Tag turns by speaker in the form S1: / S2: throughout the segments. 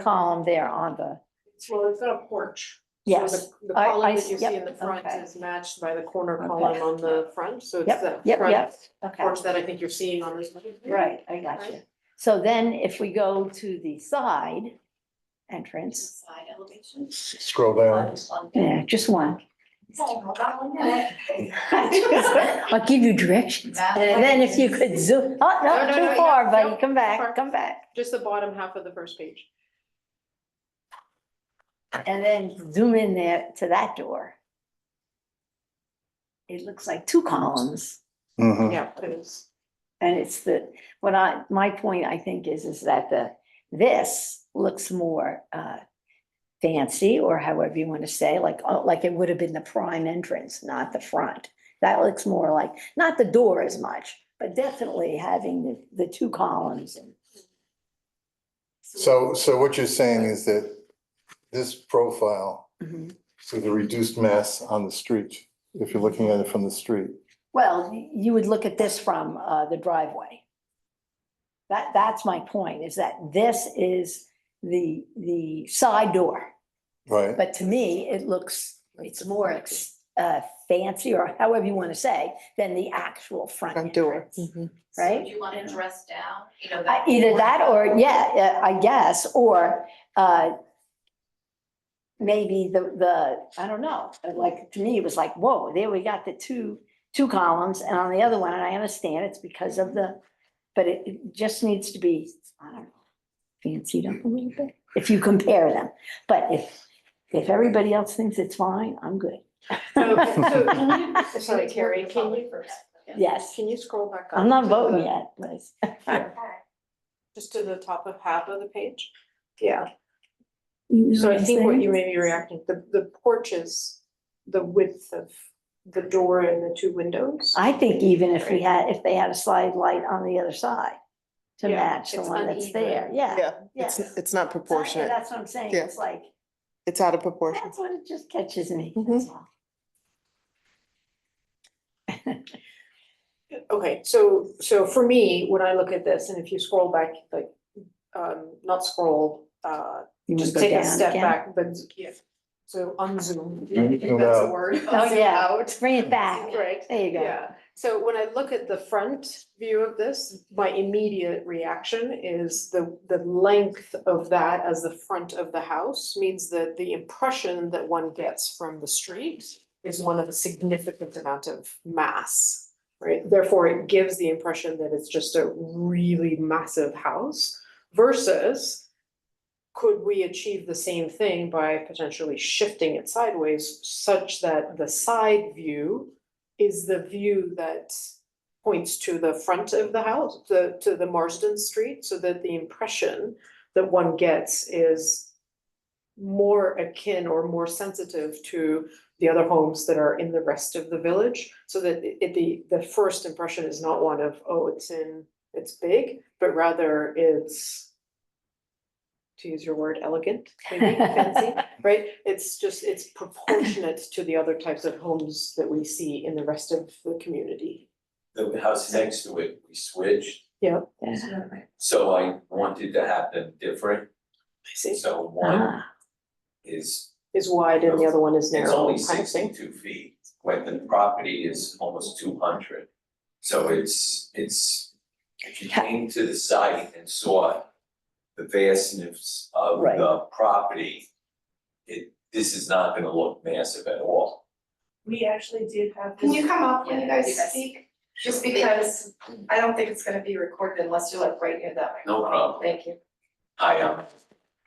S1: column there on the,
S2: Well, it's not a porch. So
S1: yes,
S2: the- The
S1: I- I
S2: column that
S1: s-
S2: you see
S1: yep,
S2: in the front
S1: okay.
S2: is matched by the corner
S1: Okay.
S2: column on the front, so it's
S1: yep,
S2: that
S1: yep,
S2: front
S1: yep, okay.
S2: porch that I think you're seeing on this. one.
S1: Right, I got you. So then if we go to the side entrance,
S3: Side elevation.
S4: Scroll down.
S1: yeah, just one.
S3: And
S1: I'll give you directions. And then if you could zoom, oh,
S2: No,
S1: no,
S2: no, no,
S1: too far,
S2: yeah,
S1: buddy,
S2: no,
S1: come
S2: far.
S1: back, come back.
S2: Just the bottom half of the first page.
S1: And then zoom in there to that door. It looks like two columns.
S4: Mhm.
S2: Yeah, it is.
S1: And it's the, what I, my point, I think, is, is that the, this looks more uh fancy, or however you want to say, like, oh, like it would have been the prime entrance, not the front. That looks more like, not the door as much, but definitely having the, the two columns and
S4: So, so what you're saying is that this profile,
S1: Mhm.
S4: so the reduced mass on the street, if you're looking at it from the street.
S1: Well, you would look at this from uh, the driveway. That, that's my point, is that this is the, the side door.
S4: Right,
S1: But to me, it looks, it's more ex- uh, fancy, or however you want to say, than the actual front
S5: Front door. Mm-hmm.
S1: entrance,
S3: Do
S1: right?
S3: you want to dress down, you know?
S1: Uh, Either
S3: corner.
S1: that or, yeah, uh, I guess, or uh, maybe the, the, I don't know, like, to me, it was like, whoa, there we got the two, two columns, and on the other one, and I understand it's because of the, but it it just needs to be, I don't know, fancied up a little bit, if you compare them. But if, if everybody else thinks it's fine, I'm good.
S2: So- so- Sorry, Carrie, can you,
S1: Yes,
S2: can you scroll back up?
S1: I'm not
S2: to
S1: voting
S2: the-
S1: yet, but
S2: Just to the top of half of the page? Yeah. So I think what you may be reacting, the, the porch is the width of the door and the two windows.
S1: I think even if we had, if they had a slide light on the other side to
S2: Yeah,
S1: match the
S2: it's
S1: one that's there,
S2: uneven.
S1: yeah.
S5: Yeah,
S1: yeah.
S5: it's,
S1: So
S5: it's not
S1: I-
S5: proportionate.
S1: That's what I'm saying,
S5: Yeah.
S1: it's like,
S5: It's out of proportion.
S1: that's what it just catches me,
S5: Mhm.
S1: that's all.
S2: Okay, so, so for me, when I look at this, and if you scroll back, like, um, not scroll, uh,
S1: You wanna
S2: just
S1: go
S2: take a
S1: down
S2: step
S1: again?
S2: back, but. So unzoom,
S4: Mhm.
S2: if that's a
S4: Yeah.
S2: word.
S1: Oh,
S2: unzoom
S1: yeah. Ah.
S2: out.
S1: Bring it back,
S2: Right,
S1: there you go.
S2: yeah, so when I look at the front view of this, my immediate reaction is the, the length of that as the front of the house. Means that the impression that one gets from the street is one of a significant amount of mass. Right, therefore it gives the impression that it's just a really massive house versus. Could we achieve the same thing by potentially shifting it sideways such that the side view is the view that points to the front of the house, to, to the Marsden Street, so that the impression that one gets is more akin or more sensitive to the other homes that are in the rest of the village, so that it, it- the, the first impression is not one of, oh, it's in, it's big, but rather it's, to use your word, elegant, maybe fancy, right? It's just, it's proportionate to the other types of homes that we see in the rest of the community.
S6: the house next to it, we switched,
S1: Yeah.
S6: so I wanted to have them different,
S2: I see.
S6: so one
S1: Ah,
S6: is,
S2: Is wide and the other one is narrow.
S6: it's only
S2: kind of thing.
S6: sixty-two feet, when the property is almost two hundred. So it's, it's, if you came to the site and saw the vastness of
S1: Right.
S6: the property, it, this is not gonna look massive at all.
S7: We actually did have.
S3: Can
S7: this-
S3: you come up when you guys
S7: Yes.
S3: speak? Just because I don't think it's gonna be recorded unless you're like right near that microphone.
S6: No problem.
S3: Thank you.
S6: I am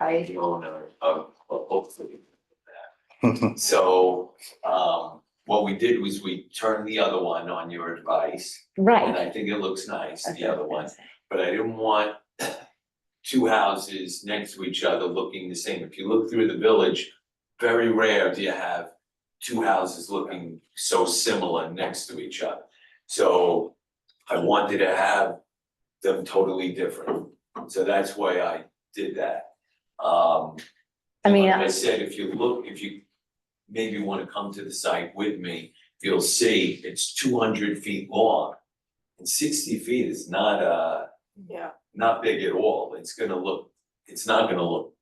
S1: I-
S6: the owner of, of hopefully So, um, what we did was we turned the other one on your advice, and
S1: Right.
S6: I think it looks nice,
S1: That's
S6: the
S1: what I
S6: other
S1: was
S6: one,
S1: gonna say.
S6: but I didn't want two houses next to each other looking the same. If you look through the village, very rare do you have two houses looking so similar next to each other. So I wanted to have them totally different, so that's why I did that. Um,
S1: I mean, uh,
S6: like I
S1: I-
S6: said, if you look, if you maybe wanna come to the site with me, you'll see it's two hundred feet long. And sixty feet is not uh,
S2: Yeah,
S6: not big at all, it's gonna look, it's not gonna look